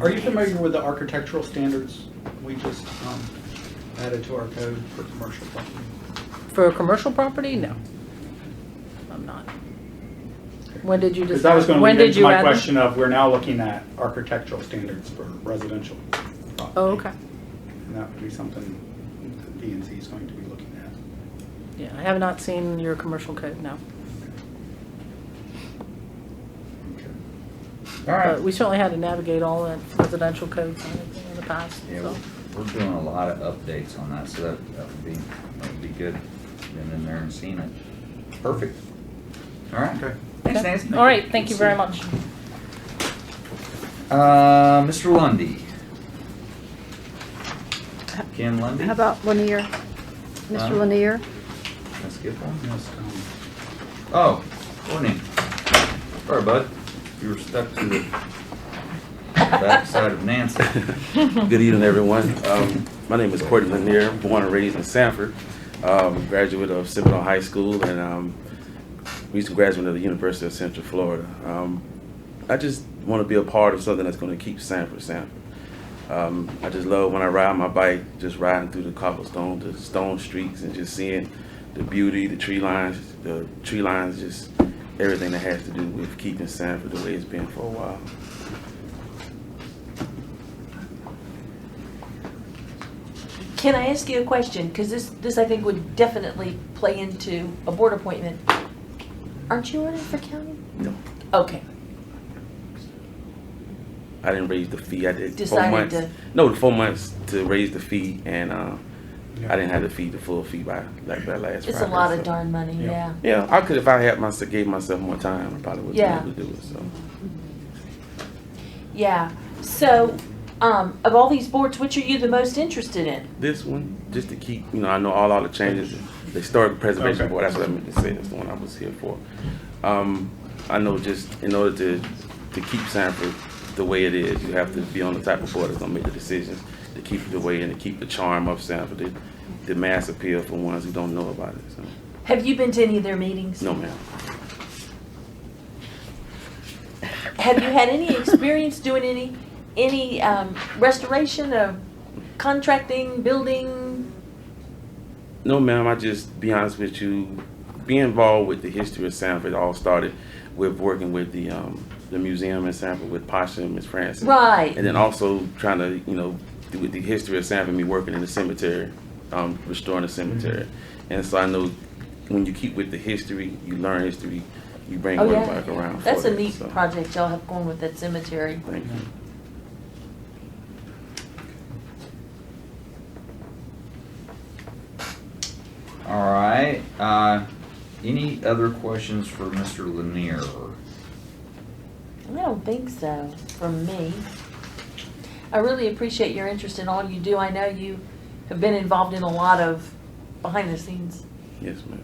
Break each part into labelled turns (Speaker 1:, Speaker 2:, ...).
Speaker 1: Are you familiar with the architectural standards we just um, added to our code for commercial property?
Speaker 2: For a commercial property? No. I'm not. When did you
Speaker 1: Because that was
Speaker 2: decide-
Speaker 1: going to
Speaker 2: when
Speaker 1: lead
Speaker 2: did
Speaker 1: into
Speaker 2: you
Speaker 1: my
Speaker 2: add them?
Speaker 1: question of, we're now looking at architectural standards for residential property.
Speaker 2: Oh, okay.
Speaker 1: And that would be something that DNC is going to be looking at.
Speaker 2: Yeah, I have not seen your commercial code, no.
Speaker 3: All
Speaker 2: But we
Speaker 3: right.
Speaker 2: certainly had to navigate all the residential codes and everything in the past,
Speaker 3: Yeah,
Speaker 2: so.
Speaker 3: we're- we're doing a lot of updates on that, so that, that would be, that would be good. Been in there and seen it. Perfect. All right.
Speaker 1: Okay.
Speaker 3: Thanks,
Speaker 2: Okay.
Speaker 3: Nancy.
Speaker 2: All right, thank you very much.
Speaker 3: Uh, Mr. Lundy. Ken Lundy?
Speaker 4: How about Lanier? Mr.
Speaker 3: Um,
Speaker 4: Lanier?
Speaker 3: Let's get one.
Speaker 1: Yes, um,
Speaker 3: Oh, morning. Sorry, bud. You were stuck to the backside of Nancy.
Speaker 5: Good evening, everyone. Um, My name is Courtney Lanier, born and raised in Sanford, um, graduate of Seminole High School, and um, recent graduate of the University of Central Florida. Um, I just want to be a part of something that's going to keep Sanford Sanford. Um, I just love when I ride my bike, just riding through the cobblestone, the stone streets, and just seeing the beauty, the tree lines, the tree lines, just everything that has to do with keeping Sanford the way it's been for a while.
Speaker 6: Can I ask you a question? Because this, this I think would definitely play into a board appointment. Aren't you running for county?
Speaker 5: No.
Speaker 6: Okay,
Speaker 5: I didn't raise the fee. I did four
Speaker 6: Decided
Speaker 5: months.
Speaker 6: to-
Speaker 5: No, four months to raise the fee, and uh,
Speaker 1: yeah.
Speaker 5: I didn't have to feed the full fee by like that last.
Speaker 6: it's a
Speaker 5: Friday,
Speaker 6: lot of
Speaker 5: so-
Speaker 6: darn money,
Speaker 1: Yeah.
Speaker 6: yeah.
Speaker 5: Yeah, I could if I had myself gave myself more time. I probably would have
Speaker 6: Yeah.
Speaker 5: been able to do it. So
Speaker 6: Yeah, so, um, of all these boards, which are you the most interested in?
Speaker 5: this one, just to keep, you know, I know all all the changes. The historic preservation
Speaker 1: Okay.
Speaker 5: board. That's what I meant to say. That's the one I was here for. Um, I know just in order to to keep Sanford the way it is, you have to be on the type of board that's gonna make the decisions to keep it the way and to keep the charm of Sanford, the, the mass appeal for ones who don't know about it. So.
Speaker 6: Have you been to any of their meetings?
Speaker 5: No, ma'am.
Speaker 6: Have you had any experience doing any, any, um, restoration of contracting, building?
Speaker 5: No, ma'am. I just be honest with you. Being involved with the history of Sanford all started with working with the um, the museum in Sanford with Pasha and Miss Francis.
Speaker 6: Right.
Speaker 5: And then also trying to you know do with the history of Sanford, me working in the cemetery, um, restoring the cemetery, and so I know when you keep with the history, you learn history, you bring
Speaker 6: Oh
Speaker 5: one
Speaker 6: yeah,
Speaker 5: back around.
Speaker 6: That's
Speaker 5: for
Speaker 6: a
Speaker 5: it,
Speaker 6: neat
Speaker 5: so,
Speaker 6: project y'all have going with that cemetery.
Speaker 5: Thank you.
Speaker 3: All right. Uh, any other questions for Mr. Lanier?
Speaker 6: I don't think so, from me. I really appreciate your interest in all you do. I know you have been involved in a lot of behind the scenes.
Speaker 5: Yes, ma'am.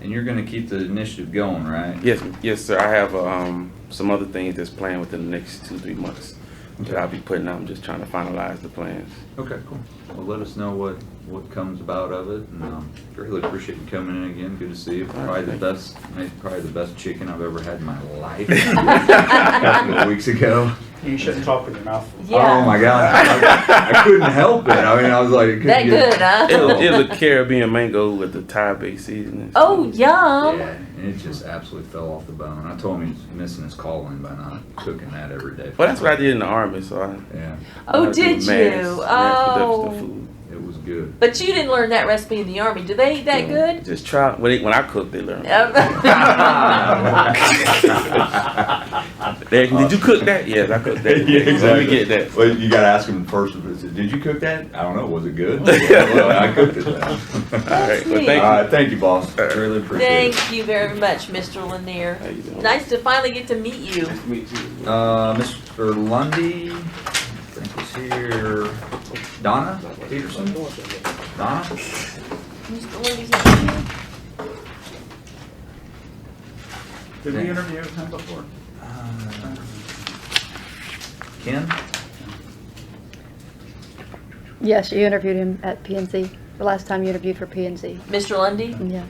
Speaker 3: And you're gonna keep the initiative going, right?
Speaker 5: Yes, yes, sir. I have um, some other things that's planned within the next two, three months that I'll be putting out. I'm just trying to finalize the plans.
Speaker 3: Okay, cool. Well, let us know what, what comes about of it, and, um, greatly appreciate you coming in again, good to see you. Probably the best, maybe probably the best chicken I've ever had in my life. A Couple of weeks ago.
Speaker 1: You shouldn't talk with your mouth. full.
Speaker 6: Yeah.
Speaker 3: Oh my god, I, I couldn't help it, I mean, I was like. it couldn't
Speaker 6: That
Speaker 3: get-
Speaker 6: good, huh?
Speaker 5: It'll, it'll Caribbean mango with the Thai based seasoning.
Speaker 6: Oh,
Speaker 3: Yeah,
Speaker 6: yum.
Speaker 3: and it just absolutely fell off the bone. I told him he's missing his calling by not cooking that every day.
Speaker 5: Well, that's what I did in the army, so I.
Speaker 3: Yeah,
Speaker 5: I
Speaker 6: Oh,
Speaker 5: do
Speaker 6: did
Speaker 5: mass-
Speaker 6: you?
Speaker 5: mass production of
Speaker 6: Oh.
Speaker 5: food.
Speaker 3: it was good.
Speaker 6: But you didn't learn that recipe in the army. Do they eat that
Speaker 5: Yeah.
Speaker 6: good?
Speaker 5: Just try. When, they, when I cook, they learn. They- did you cook that? Yes, I cooked that.
Speaker 3: yeah, exactly.
Speaker 5: Let me get that.
Speaker 3: Well, you gotta ask him first. if it's- Did you cook that? I don't know. Was it good? well, I cooked it. Then.
Speaker 5: All
Speaker 3: All
Speaker 5: right. Well,
Speaker 6: neat.
Speaker 5: thank you.
Speaker 3: right, thank you, boss. Really appreciate it.
Speaker 6: Thank you very much, Mr. Lanier.
Speaker 5: How you doing?
Speaker 6: Nice to finally get to meet you.
Speaker 5: Nice to meet you.
Speaker 3: Uh, Mr. Lundy, I think was here. Donna Peterson. Donna.
Speaker 6: Mr. Lundy's not here.
Speaker 1: Did we interview him before?
Speaker 3: Uh, Ken.
Speaker 4: Yes, you interviewed him at PNC, the last time you interviewed for PNC.
Speaker 6: Mr. Lundy?
Speaker 4: Yeah.